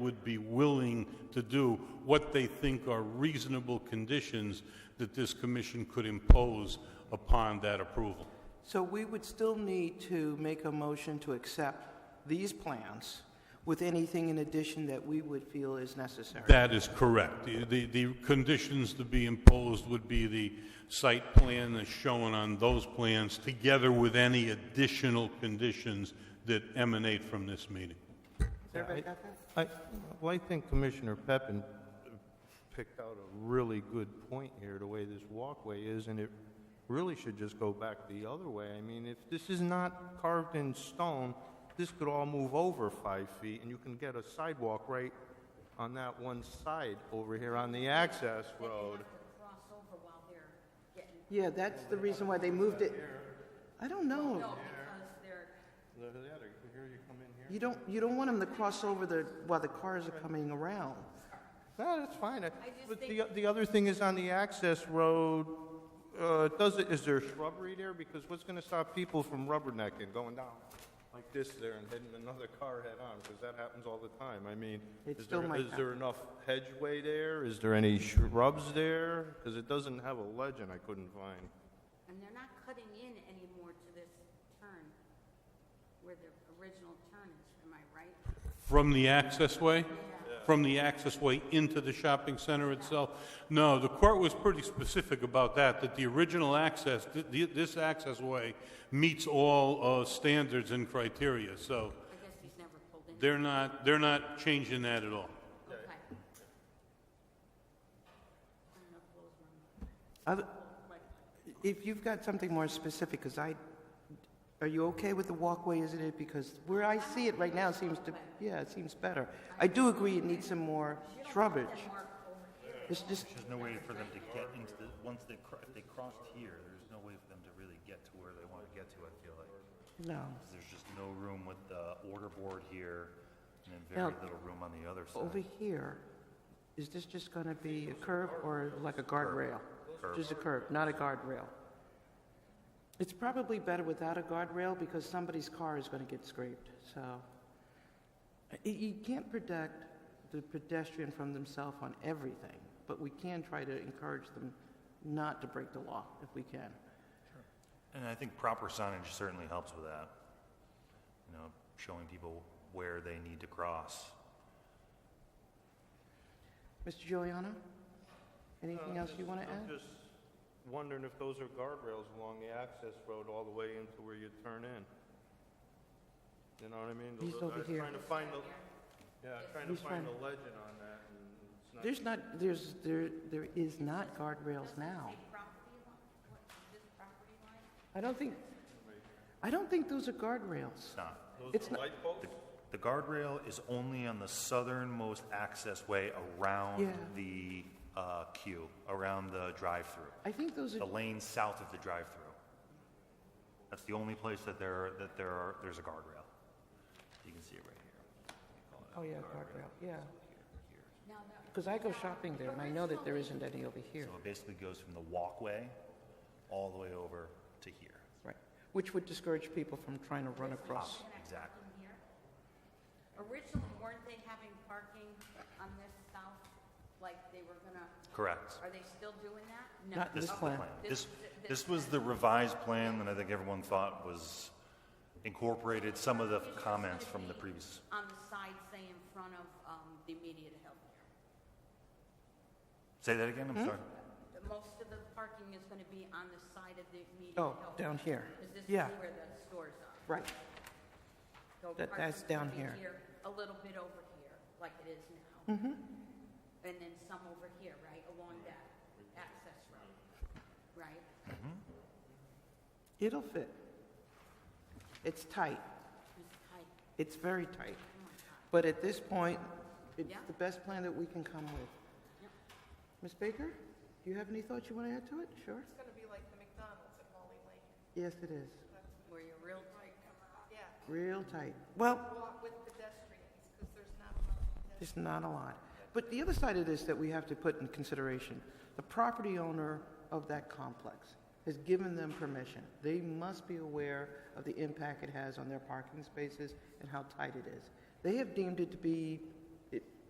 would be willing to do what they think are reasonable conditions that this commission could impose upon that approval. So we would still need to make a motion to accept these plans with anything in addition that we would feel is necessary. That is correct. The- The, the conditions to be imposed would be the site plan as shown on those plans, together with any additional conditions that emanate from this meeting. I, well, I think Commissioner Peppin picked out a really good point here, the way this walkway is, and it really should just go back the other way. I mean, if this is not carved in stone, this could all move over five feet, and you can get a sidewalk right on that one side over here on the access road. Yeah, that's the reason why they moved it. I don't know. Look at that, here you come in here. You don't, you don't want them to cross over the, while the cars are coming around. No, that's fine. I- But the, the other thing is on the access road, uh, does it, is there shrubbery there? Because what's gonna stop people from rubbernecking, going down like this there and hitting another car head-on? Because that happens all the time. I mean, It is still there, might is there enough hedgeway there? Is there any shrubs there? Because it doesn't have a legend I couldn't find. And they're not cutting in anymore to this turn where the original turn is, am I right? From the accessway? From the accessway into the shopping center itself? No, the court was pretty specific about that, that the original access, th- th- this accessway meets all uh, standards and criteria, so I guess he's never pulled in. they're not, they're not changing that at all. Okay. Other- If you've got something more specific, because I, are you okay with the walkway, isn't it? Because where I see it right now seems to, yeah, it seems better. I do agree it needs some more shrubbage. It's just, There's no way for them to get into the, once they, cro- if they crossed here, there's no way for them to really get to where they want to get to, I feel like. no. 'Cause there's just no room with the order board here, and then Now, very little room on the other Over side. here, is this just going to be a curb or like a guardrail? Just a curb, not a guardrail. It's probably better without a guardrail because somebody's car is going to get scraped, so. Y- You can't protect the pedestrian from themselves on everything, but we can try to encourage them not to break the law if we can. And I think proper signage certainly helps with that. You know, showing people where they need to cross. Mr. Giuliano, anything else you want to I'm add? Uh, just wondering if those are guardrails along the access road all the way into where you turn in. You know what I mean? The He's li- over I'm here. Trying to find the, yeah, I'm trying to He's find trying- the legend on that, and it's not. There's not, there's, there, there is not guardrails now. I don't think, I don't think those are guardrails. It's not. It's not, Light bulbs? The- The guardrail is only on the southernmost access way around Yeah. the uh, queue, around the drive-through. I think those are, the lane south of the drive-through. That's the only place that there, that there are, there's a guardrail. You can see it right here. oh yeah, guardrail, yeah. Because I go shopping there and I know that there isn't any over here, So it basically goes from the walkway all the way over to here. right? Which would discourage people from trying to run across. Exactly. Originally, weren't they having parking on this south, like they were gonna, Correct. are they still doing that? No. Not this Okay. plan. This, this was the revised plan that I think everyone thought was incorporated some of the comments from the previous. On the side, say in front of, um, the immediate healthcare. Say that again, Hmm? I'm sorry. The- Most of the parking is gonna be on the side of the immediate Oh, health. down here, Because this is yeah, where the stores are. right. So That- parking that's would down be here. A little bit over here, like it is now. Mm-hmm. And then some over here, right, along that access road, right? It'll fit. It's tight, It's tight. it's very tight. Oh my God. But at this point, it's Yeah. the best plan that we can come with. Yep. Ms. Baker, do you have any thoughts you want to add to it? Sure. It's gonna be like the McDonald's at Holly Lane. Yes, it is. Where you're real tight. Yeah, Real tight. Well, walk with pedestrians, because there's not enough pedestrians. There's not a lot. But the other side of this that we have to put in consideration, the property owner of that complex has given them permission. They must be aware of the impact it has on their parking spaces and how tight it is. They have deemed it to be